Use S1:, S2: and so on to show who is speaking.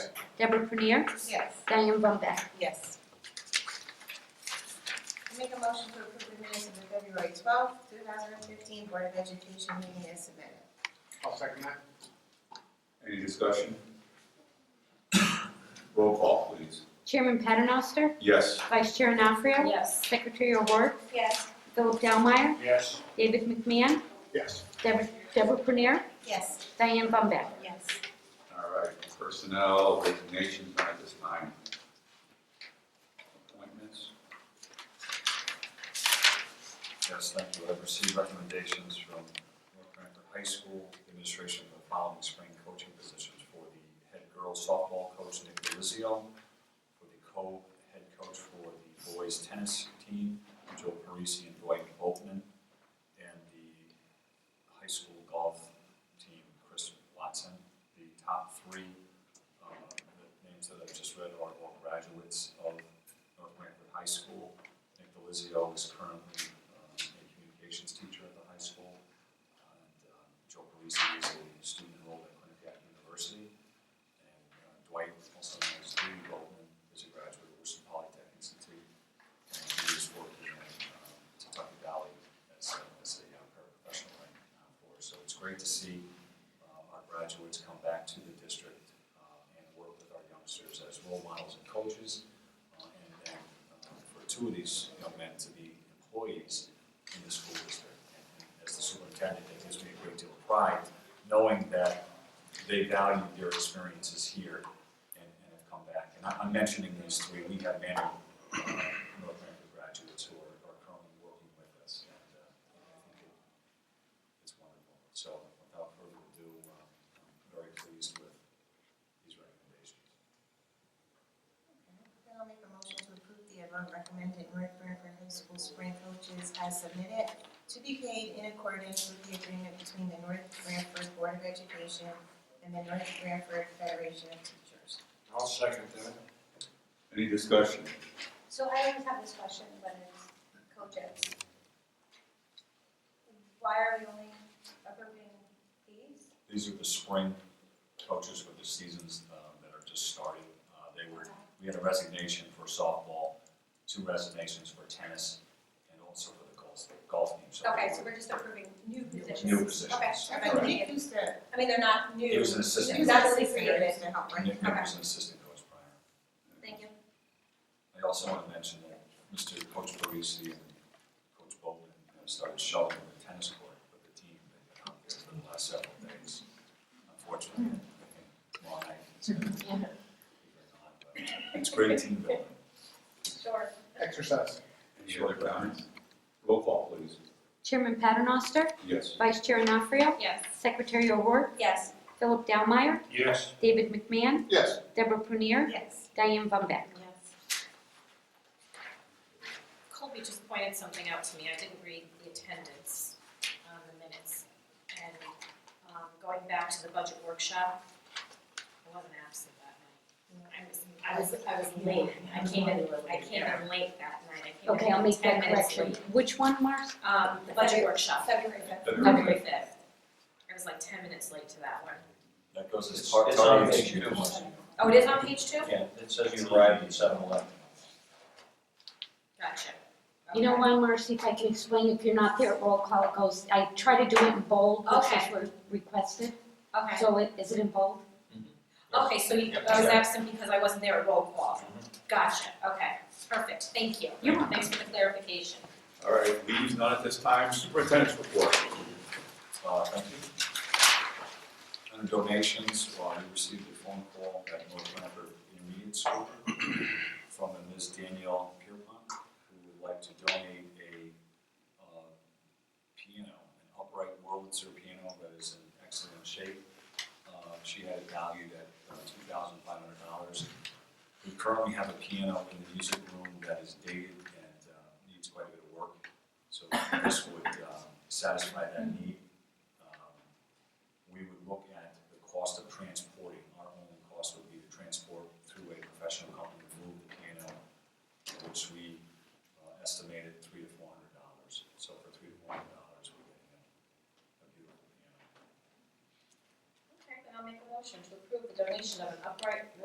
S1: Deborah Prunier,
S2: Yes.
S1: Diane Brumback.
S2: Yes. I make a motion to approve the minutes of the February twelfth, two thousand and fifteen Board of Education meeting as submitted.
S3: I'll second that.
S4: Any discussion? Roll call, please.
S1: Chairman Paternoster,
S4: Yes.
S1: Vice Chair Anafrio,
S5: Yes.
S1: Secretary O'Rourke,
S2: Yes.
S1: Philip Delmeyer,
S3: Yes.
S1: David McMahon,
S3: Yes.
S1: Deborah Deborah Prunier,
S2: Yes.
S1: Diane Brumback.
S2: Yes.
S4: All right, personnel resignations not at this time. Appointments,
S6: Yes, thank you. I've received recommendations from North Branford High School Administration for the following spring coaching positions for the head girls softball coach Nick Delizio, for the co-head coach for the boys tennis team, Joe Parisi and Dwight Boltman, and the high school golf team, Chris Watson. The top three, uh, the names that I've just read are all graduates of North Branford High School. Nick Delizio is currently um, a communications teacher at the high school. And, um, Joe Parisi is a student enrolled at Quinnipiac University. And uh, Dwight, also known as Dewey Goldman, is a graduate of Worcester Polytech Institute. And he is working at um, Kentucky Valley as a, as a uh, paraprofessional right now for us. So it's great to see uh, our graduates come back to the district uh, and work with our youngsters as role models and coaches uh, and then uh, for two of these young men to be employees in the school district. And As the superintendent, that gives me a great deal of pride, knowing that they value their experiences here and and have come back. And I- I'm mentioning these three, we have many uh, North American graduates who are are currently working with us, and uh, I think it- it's wonderful. So without further ado, uh, I'm very pleased with these recommendations.
S2: Then I'll make a motion to approve the above recommended North Branford High School spring coaches as submitted to be paid in accordance with the agreement between the North Branford Board of Education and the North Branford Federation of Teachers.
S3: I'll second that.
S4: any discussion?
S5: So I always have this question when it's coaches. Why are we only approving these?
S6: These are the spring coaches for the seasons uh, that are just starting. Uh, They were, we had a resignation for softball, two resignations for tennis, and also for the golf, golf team. So
S5: Okay, so we're just approving new positions?
S6: New positions.
S5: Okay,
S2: I
S5: okay.
S2: think who's the,
S5: I mean, they're not new.
S6: He was an assistant.
S5: New
S2: that's the
S5: positions
S2: secretary
S5: created.
S2: to help, right?
S6: Nick Nick was an assistant coach prior.
S5: Thank you.
S6: I also want to mention that Mr. Coach Parisi and Coach Bowman have started shuttling the tennis court with the team. They've been out there for the last several days. Unfortunately, I think tomorrow night it's going to be very hot, but It's great team building.
S5: Sure.
S3: Exercise.
S4: Any other comments? Roll call, please.
S1: Chairman Paternoster,
S4: Yes.
S1: Vice Chair Anafrio,
S5: Yes.
S1: Secretary O'Rourke,
S5: Yes.
S1: Philip Delmeyer,
S3: Yes.
S1: David McMahon,
S3: Yes.
S1: Deborah Prunier,
S2: Yes.
S1: Diane Brumback.
S7: Yes. Colby just pointed something out to me, I didn't read the attendance on the minutes. And, um, going back to the budget workshop, I wasn't absent that night. I was, I was, I was late, I came in, I came in late that night, I came in ten minutes late.
S1: Okay, I'll make that correction. Which one, Mark?
S7: Um, the budget workshop,
S5: February fifth.
S7: February fifth. I was like ten minutes late to that one.
S6: That goes as
S8: It's-
S6: far as
S8: it's on
S6: our
S8: page
S6: issue.
S8: two.
S7: Oh, it is on page two?
S8: Yeah, it says you arrived at seven eleven.
S7: Gotcha.
S1: You know
S7: Okay.
S1: why, Marcy, if I can explain, if you're not there at roll call, it goes, I try to do it in bold, which is
S7: Okay.
S1: what requested.
S7: Okay.
S1: So it, is it in bold?
S7: Okay, so you, I was absent because I wasn't there at roll call. Gotcha, okay, perfect, thank you.
S1: Mm-hmm. You're welcome.
S7: Thanks for the clarification.
S4: All right, leaves none at this time. Superintendent's report.
S6: Uh, thank you. Under donations, uh, we received a phone call at North Bramford Intermediate School from a Ms. Danielle Pierpont, who would like to donate a, uh, piano, an upright Wurlitzer piano that is in excellent shape. Uh, she had it valued at uh, two thousand five hundred dollars. We currently have a piano in the music room that is dated and, uh, needs quite a bit of work. So this would, um, satisfy that need um, we would look at the cost of transporting. Our only cost would be to transport through a professional company to move the piano, which we uh, estimated three to four hundred dollars. So for three to four hundred dollars, we're getting a a beautiful piano.
S7: Okay, then I'll make a motion to approve the donation of an upright